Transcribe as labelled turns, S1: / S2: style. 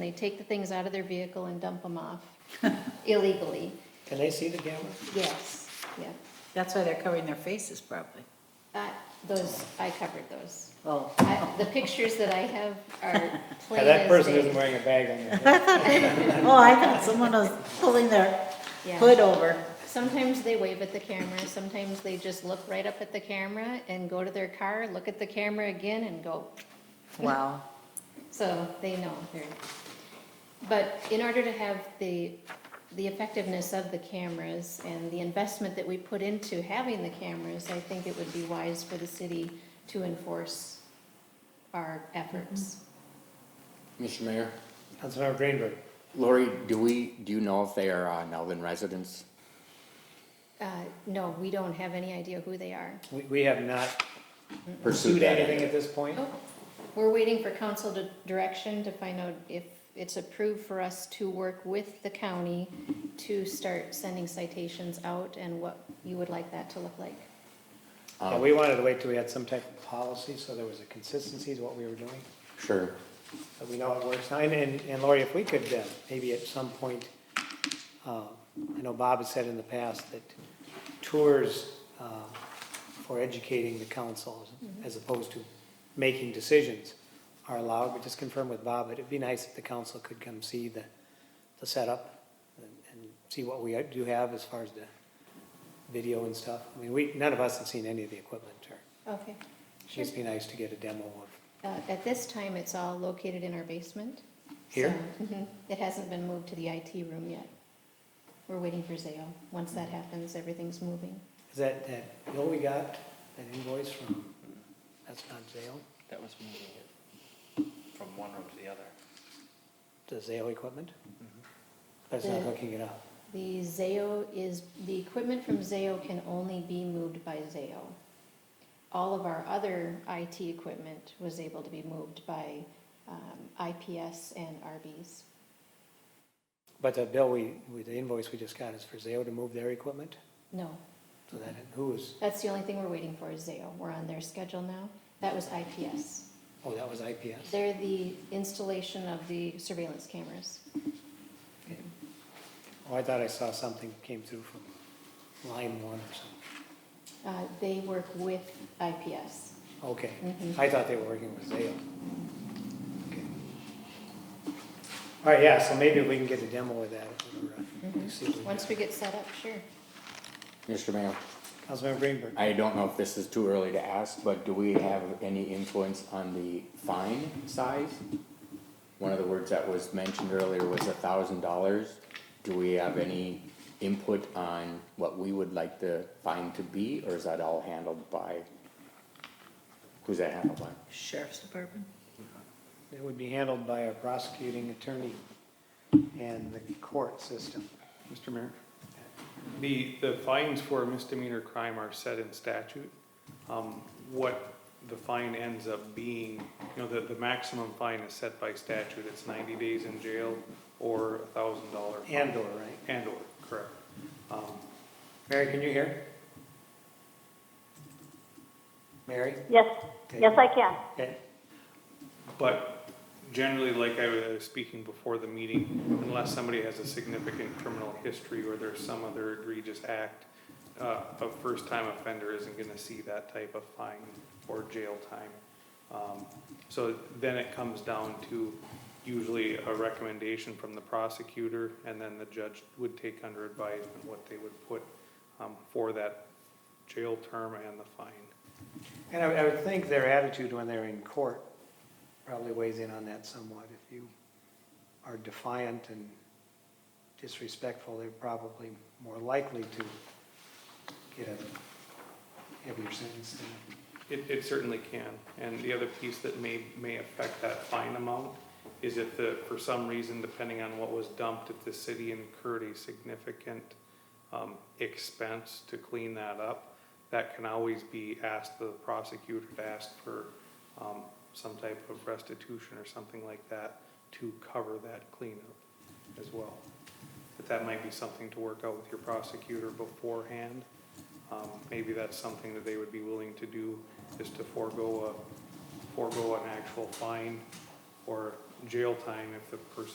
S1: They take the things out of their vehicle and dump them off illegally,
S2: Can they see the camera?
S1: yes, yeah.
S3: That's why they're covering their faces probably.
S1: That, those, I covered those.
S3: Oh.
S1: I- The pictures that I have are
S2: Now,
S1: plain
S2: that
S1: as
S2: person isn't
S1: day.
S2: wearing a bag on their head.
S3: Oh, I thought someone was pulling their
S1: Yeah.
S3: hood over.
S1: Sometimes they wave at the camera, sometimes they just look right up at the camera and go to their car, look at the camera again and go,
S3: Wow.
S1: so they know they're. But in order to have the, the effectiveness of the cameras and the investment that we put into having the cameras, I think it would be wise for the city to enforce our efforts.
S4: Mr. Mayor,
S2: Councilmember Greenberg.
S4: Lori, do we, do you know if they are uh, Nelvin residents?
S1: Uh, No, we don't have any idea who they are.
S2: We, we have not
S4: Pursue
S2: sued
S4: that.
S2: anything at this point.
S1: Oh, We're waiting for council to- direction to find out if it's approved for us to work with the county to start sending citations out and what you would like that to look like.
S2: Yeah, we wanted to wait till we had some type of policy, so there was a consistency to what we were doing,
S4: Sure.
S2: but we know it works. now. And- And, and Lori, if we could, uh, maybe at some point, uh, I know Bob has said in the past that tours uh, for educating the council, as opposed to making decisions, are allowed, but just confirm with Bob, that it'd be nice if the council could come see the, the setup and and see what we do have as far as the video and stuff. I mean, we, none of us have seen any of the equipment or
S1: Okay.
S2: It'd just be nice to get a demo of,
S1: Uh, At this time, it's all located in our basement.
S2: Here?
S1: So, mhm, It hasn't been moved to the IT room yet. We're waiting for Zayo. Once that happens, everything's moving.
S2: is that, that bill we got, that invoice from, that's not Zale,
S5: That was moving it from one room to the other.
S2: the Zale equipment? That's not
S1: Mm-hmm. The-
S2: hooking it up.
S1: The Zayo is, the equipment from Zayo can only be moved by Zayo. All of our other IT equipment was able to be moved by um, IPS and RBs.
S2: But the bill we, with the invoice we just got is for Zale to move their equipment?
S1: No,
S2: So that, who was,
S1: that's the only thing we're waiting for is Zayo. We're on their schedule now. That was IPS.
S2: oh, that was IPS?
S1: They're the installation of the surveillance cameras.
S2: Oh, I thought I saw something came through from line one or something.
S1: Uh, They work with IPS.
S2: Okay,
S1: Mhm.
S2: I thought they were working with Zale. Okay. All right, yeah, so maybe we can get a demo of that. if we're, uh, see what we
S1: Mm-hmm. Once we get set up, sure.
S4: Mr. Mayor,
S2: Councilmember Greenberg.
S4: I don't know if this is too early to ask, but do we have any influence on the fine size? One of the words that was mentioned earlier was a thousand dollars. Do we have any input on what we would like the fine to be, or is that all handled by? Who's that handled by?
S3: Sheriff's Department?
S2: It would be handled by a prosecuting attorney and the court system. Mr. Mayor?
S6: The, the fines for a misdemeanor crime are set in statute. Um, What the fine ends up being, you know, the, the maximum fine is set by statute. It's ninety days in jail or a thousand dollar.
S2: Andor, right?
S6: And/or, correct. Um,
S2: Mary, can you hear? Mary?
S7: Yes, yes, I can.
S2: Okay.
S6: But generally, like I was speaking before the meeting, unless somebody has a significant criminal history or there's some other egregious act, uh, a first-time offender isn't gonna see that type of fine or jail time. Um, So then it comes down to usually a recommendation from the prosecutor, and then the judge would take under advisement what they would put um, for that jail term and the fine.
S2: And I I would think their attitude when they're in court probably weighs in on that somewhat. If you are defiant and disrespectful, they're probably more likely to get a heavier sentence than
S6: It, it certainly can, and the other piece that may, may affect that fine amount is if the, for some reason, depending on what was dumped, if the city incurred a significant, um, expense to clean that up, that can always be asked, the prosecutor to ask for, um, some type of restitution or something like that to cover that cleanup as well. But that might be something to work out with your prosecutor beforehand. Um, maybe that's something that they would be willing to do, is to forego a, forego an actual fine or jail time if the person